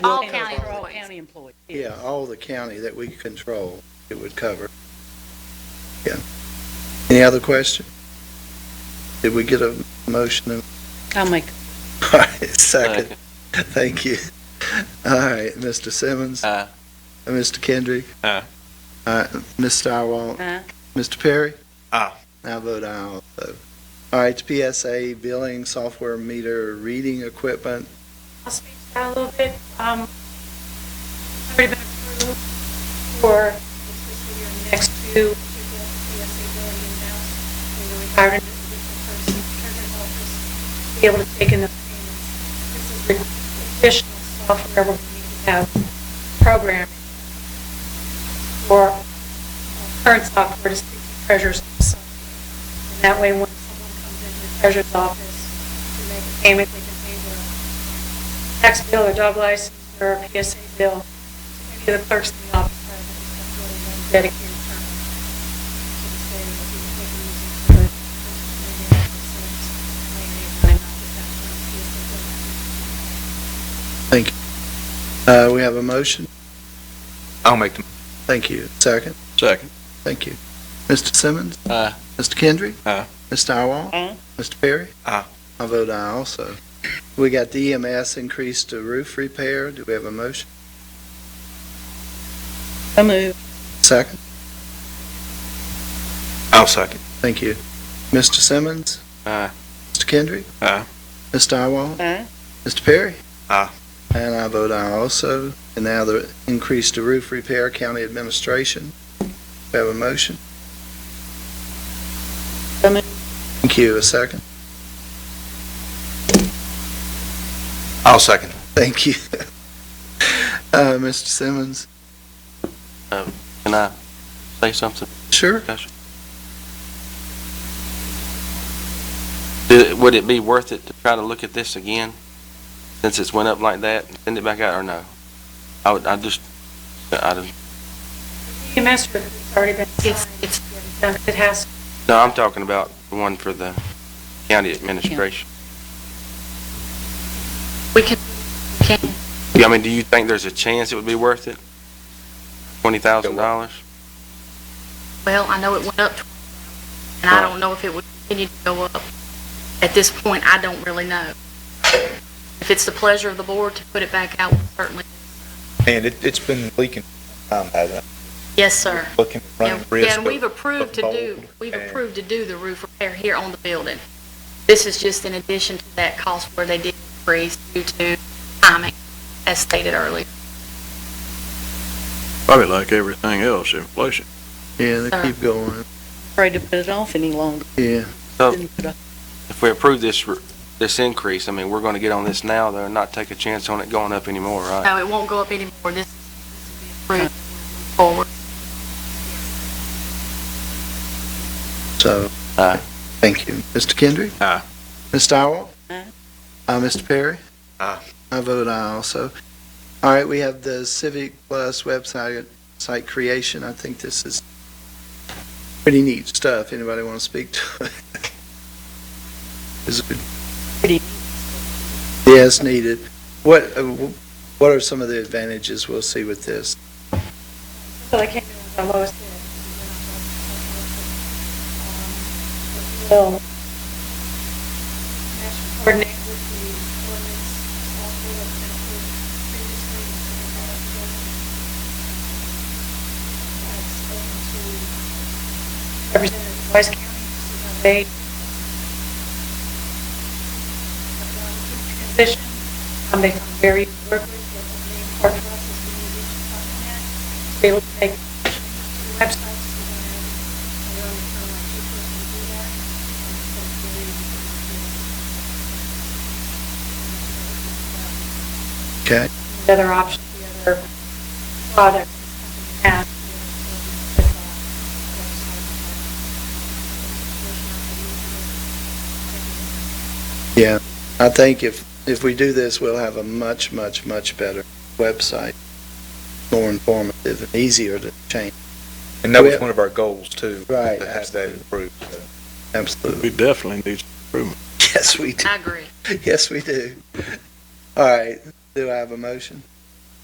employees. Yeah, all the county that we control, it would cover. Yeah. Any other question? Did we get a motion? I'll make, All right, Second. Thank you. All right, Mr. Simmons, Aye. Mr. Kendrick. Aye. Uh, Ms. Starwalt, uh, Mr. Perry. Aye. I vote aye also. All right, PSA billing software meter reading equipment. I'll speak to that a little bit. Um, it's already been approved for this fiscal year and the next two to get PSA billing in-house. We really hired an individual person, treasurer's office, to be able to take in the payments. This is the additional software we're going to need to have programmed for uh, current software to speak to treasurer's office. And that way, when someone comes into the treasurer's office to make a payment, they can pay their tax bill, their dog license, or a PSA bill. Any of the clerks in the office have a really one dedicated person to the state, if you can make it easy for the person in the office, and maybe not just have one Thank PSA bill. you. Uh, we have a motion. I'll make the. Thank you. Second. Second. Thank you. Mr. Simmons? Aye. Mr. Kendry? Aye. Ms. Starwall? Aye. Mr. Perry? Aye. I vote aye also. We got the E EMS increase to roof repair. Do we have a motion? so move, Second. I'll second. Thank you. Mr. Simmons? Aye. Mr. Kendry? Aye. Ms. Starwall? uh, Mr. Perry? Aye. And I vote aye also. And now the increase to roof repair, county administration. We have a motion. so move, Thank you. A second. I'll second. Thank you. Uh, Mr. Simmons? Can I say something? Sure. Do- Would it be worth it to try to look at this again, since it's went up like that, and send it back out, or no? I would, I just, I don't, EMS group has already been It's- signed. it's- It has, no, I'm talking about the one for the county administration. we can, can, Yeah, I mean, do you think there's a chance it would be worth it? Twenty thousand dollars? Well, I know it went up, and I don't know if it would continue to go up. At this point, I don't really know. If it's the pleasure of the board to put it back out, certainly, And it, it's been leaking, um, hasn't yes, sir. it? Looking, running And risk. and we've of- approved to of do, mold we've and- approved to do the roof repair here on the building. This is just in addition to that cost where they did freeze due to timing, as stated earlier. Probably like everything else, inflation. Yeah, they keep going. afraid to put it off any longer. Yeah. So Didn't put it off. if we approve this, r- this increase, I mean, we're gonna get on this now, though, and not take a chance on it going up anymore, right? No, it won't go up anymore. This this will be approved forward. So. Aye. Thank you. Mr. Kendry? Aye. Ms. Dowell? Aye. Uh, Mr. Perry? Aye. I vote aye also. All right, we have the Civic Plus website, site creation. I think this is pretty neat stuff. Anybody want to speak to it? Is it? Pretty neat. Yes, needed. What, uh, wh- what are some of the advantages we'll see with this? so they came in with the lowest bid. Will Um, coordinate with the ordinance software that's been approved previously. so we have it built. I've spoken to Representative of Wise County, to see how they have done the transition. Um, They come very work with, but the main part for us is we need to talk to them. They will take websites to them, and they'll return our papers and do that. And so it's very easy to do. Okay? The other option, the other product has. the other service that's on the website. Yeah, I think if, if we do this, we'll have a much, much, much better website, more informative and easier to change. And that was one of our goals too. Right, To have that approved. so. Absolutely. We definitely need Yes, we do. I agree. Yes, we do. All right, do I have a motion?